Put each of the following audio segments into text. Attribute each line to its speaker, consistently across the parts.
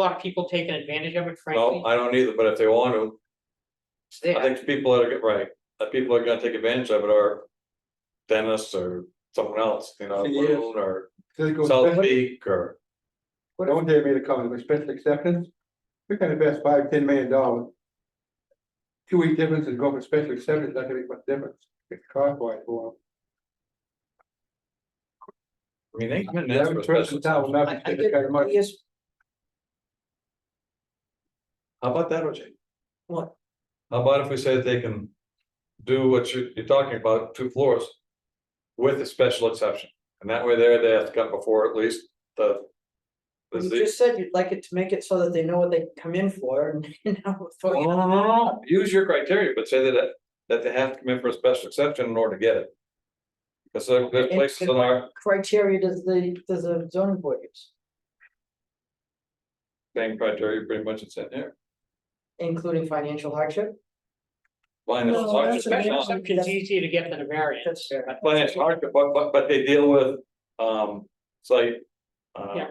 Speaker 1: lot of people taking advantage of it, frankly.
Speaker 2: No, I don't either, but if they want to,
Speaker 1: It's there.
Speaker 2: I think the people that are, get- right, the people that are gonna take advantage of it are. Dennis or someone else, you know,
Speaker 3: Thing is-
Speaker 2: Loon or
Speaker 3: They go,
Speaker 2: South
Speaker 3: "Special-"
Speaker 2: Peak or,
Speaker 3: Don't dare me to call it a special exceptions. We can invest five, ten million dollars. Two week difference and go for special exceptions, not gonna make much difference. It's cost wise for
Speaker 2: I mean, they come in
Speaker 3: them.
Speaker 2: and ask for
Speaker 3: Every
Speaker 2: a special.
Speaker 3: person town,
Speaker 1: I-
Speaker 3: nothing,
Speaker 1: I
Speaker 3: this kind of money.
Speaker 1: Yes,
Speaker 2: How about that, OJ?
Speaker 1: What?
Speaker 2: How about if we say that they can do what you're, you're talking about, two floors? With a special exception, and that way there, they have to come before at least the. the
Speaker 1: you
Speaker 2: Z-
Speaker 1: just said you'd like it to make it so that they know what they can come in for and now.
Speaker 2: No, no, no, no, no, use your criteria, but say that, that they have to come in for a special exception in order to get it. Cause there- there's
Speaker 1: And-
Speaker 2: places
Speaker 1: and
Speaker 2: in our
Speaker 1: Criteria does the, does the zoning board use,
Speaker 2: same criteria, pretty much it's in there.
Speaker 1: including financial hardship?
Speaker 2: Financial
Speaker 1: No,
Speaker 2: hardship,
Speaker 1: that's a-
Speaker 2: not-
Speaker 1: It's easier to get than a
Speaker 4: That's
Speaker 1: variance.
Speaker 4: fair.
Speaker 2: financial hardship, but, but, but they deal with, um, site. uh,
Speaker 1: Yeah.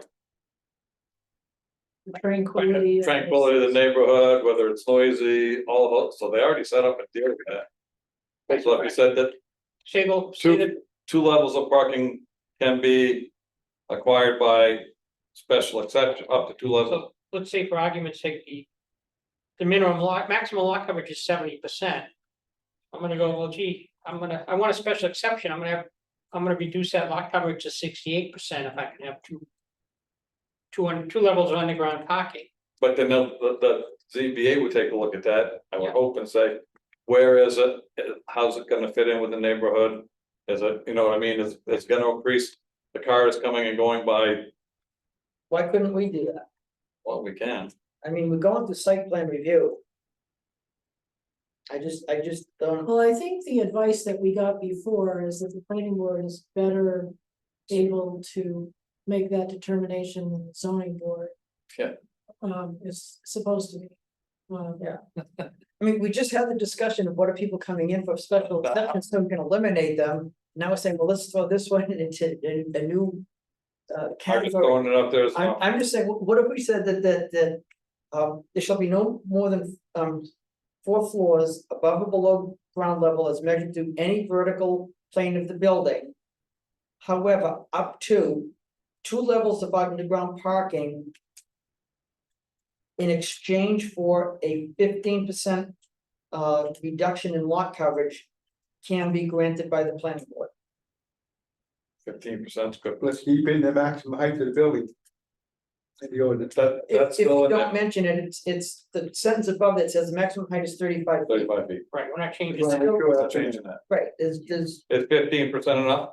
Speaker 4: Tranquility.
Speaker 2: Tranquility of the neighborhood, whether it's noisy, all of those, so they already set up a deal with that. So if you said that
Speaker 1: Say the, say the,
Speaker 2: two, two levels of parking can be acquired by special exception, up to two levels.
Speaker 1: so, let's say for argument's sake, the. The minimum lot, maximum lot coverage is seventy percent. I'm gonna go, well, gee, I'm gonna, I want a special exception, I'm gonna have, I'm gonna reduce that lot coverage to sixty-eight percent if I can have two. Two on, two levels of underground parking.
Speaker 2: But then they'll- the, the ZBA would take a look at that, I would
Speaker 1: Yeah.
Speaker 2: hope and say, where is it? How's it gonna fit in with the neighborhood? Is it, you know what I mean, is, it's gonna increase, the cars coming and going by,
Speaker 4: Why couldn't we do that?
Speaker 2: well, we can.
Speaker 4: I mean, we're going through site plan review. I just, I just don't,
Speaker 5: Well, I think the advice that we got before is that the planning board is better able to make that determination than the zoning board.
Speaker 2: Yeah.
Speaker 5: Um, is supposed to be. Um,
Speaker 4: Yeah. I mean, we just had the discussion of what are people coming in for special exceptions, so we can eliminate them. Now we're saying, well, let's throw this one into in a new. Uh,
Speaker 2: I'm just
Speaker 4: category.
Speaker 2: throwing it up there as an
Speaker 4: I'm, I'm just saying, wh- what if we said that, that, that, um, there shall be no more than, um. Four floors above or below ground level as measured through any vertical plane of the building. However, up to two levels of underground parking. In exchange for a fifteen percent, uh, reduction in lot coverage. Can be granted by the planning board.
Speaker 2: fifteen percent good.
Speaker 3: Let's keep in the maximum height of the building. And the ordinance.
Speaker 2: That, that's
Speaker 4: If, if
Speaker 2: still
Speaker 4: you
Speaker 2: in
Speaker 4: don't
Speaker 2: there,
Speaker 4: mention it, it's, it's the sentence above that says the maximum height is thirty-five feet.
Speaker 2: thirty-five feet,
Speaker 1: Right, we're not changing
Speaker 3: Right,
Speaker 1: that.
Speaker 3: sure,
Speaker 2: not
Speaker 3: that's it.
Speaker 2: changing that.
Speaker 4: Right, is, is,
Speaker 2: Is fifteen percent enough?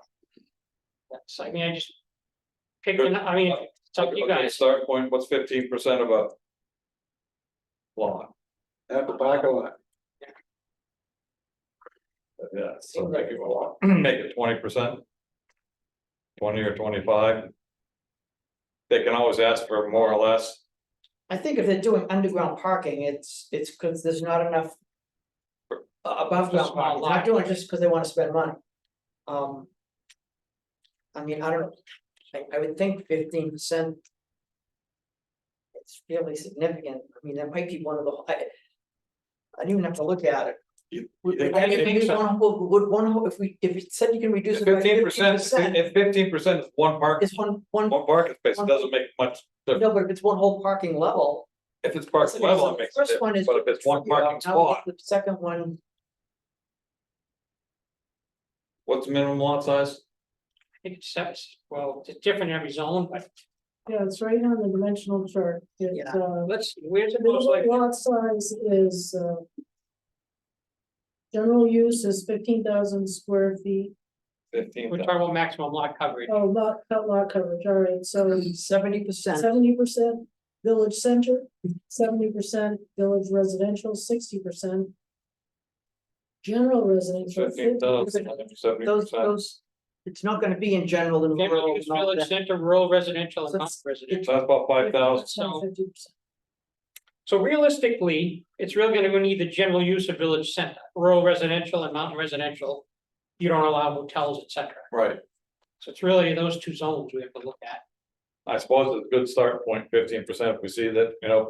Speaker 1: So I mean, I just. Picked, an- I mean, it's up to you
Speaker 2: Okay,
Speaker 1: guys.
Speaker 2: Start point, what's fifteen percent of a? Lot,
Speaker 3: That's a parking lot.
Speaker 2: yeah, so make it a lot, make it twenty percent. Twenty or twenty-five. They can always ask for more or less,
Speaker 4: I think if they're doing underground parking, it's, it's because there's not enough. a- Above ground
Speaker 1: Small
Speaker 4: parking, they're
Speaker 1: lot.
Speaker 4: not doing it just because they wanna spend money. Um. I mean, I don't, I, I would think fifteen percent. It's fairly significant, I mean, that might be one of the, I. I didn't even have to look at it.
Speaker 2: You-
Speaker 4: Would,
Speaker 2: think-
Speaker 4: would I
Speaker 2: you think
Speaker 4: reduce
Speaker 2: so?
Speaker 4: one whole- would one whole- if we, if it said you can reduce it by
Speaker 2: fifteen
Speaker 4: fifteen
Speaker 2: percent,
Speaker 4: percent,
Speaker 2: if fifteen percent is one park,
Speaker 4: it's one, one,
Speaker 2: one parking space, it doesn't make much,
Speaker 4: no, but if it's one whole parking level.
Speaker 2: if it's park
Speaker 4: Listen,
Speaker 2: level,
Speaker 4: so
Speaker 2: it
Speaker 4: the
Speaker 2: makes a
Speaker 4: first one
Speaker 2: difference,
Speaker 4: is-
Speaker 2: but if it's one
Speaker 4: you know,
Speaker 2: parking
Speaker 4: now we
Speaker 2: spot,
Speaker 4: get The second one,
Speaker 2: what's the minimum lot size?
Speaker 1: I think it's, seven- well, it's different in every zone, but
Speaker 5: Yeah, it's right on the dimensional chart. It's, uh,
Speaker 1: let's, where's
Speaker 5: the
Speaker 1: the most like?
Speaker 5: lot size is, uh. General use is fifteen thousand square feet.
Speaker 2: Fifteen,
Speaker 1: We're talking about maximum lot coverage.
Speaker 5: Oh, lot, cut lot coverage, all right, so
Speaker 4: seventy percent,
Speaker 5: seventy percent village center, seventy percent village residential, sixty percent general residential.
Speaker 2: fifteen
Speaker 5: 50%.
Speaker 2: thousand, seventy
Speaker 4: those,
Speaker 2: percent.
Speaker 4: those, it's not gonna be in general and
Speaker 1: General
Speaker 4: rural.
Speaker 1: use
Speaker 4: not
Speaker 1: village
Speaker 4: that-
Speaker 1: center, rural residential and
Speaker 4: That's-
Speaker 1: non-residential.
Speaker 2: So that's about five thousand,
Speaker 5: 50%, 50%.
Speaker 1: So realistically, it's really gonna need the general use of village center, rural residential and mountain residential. You don't allow hotels, et cetera.
Speaker 2: right,
Speaker 1: So it's really those two zones we have to look at.
Speaker 2: I suppose it's a good start point, fifteen percent, if we see that, you know,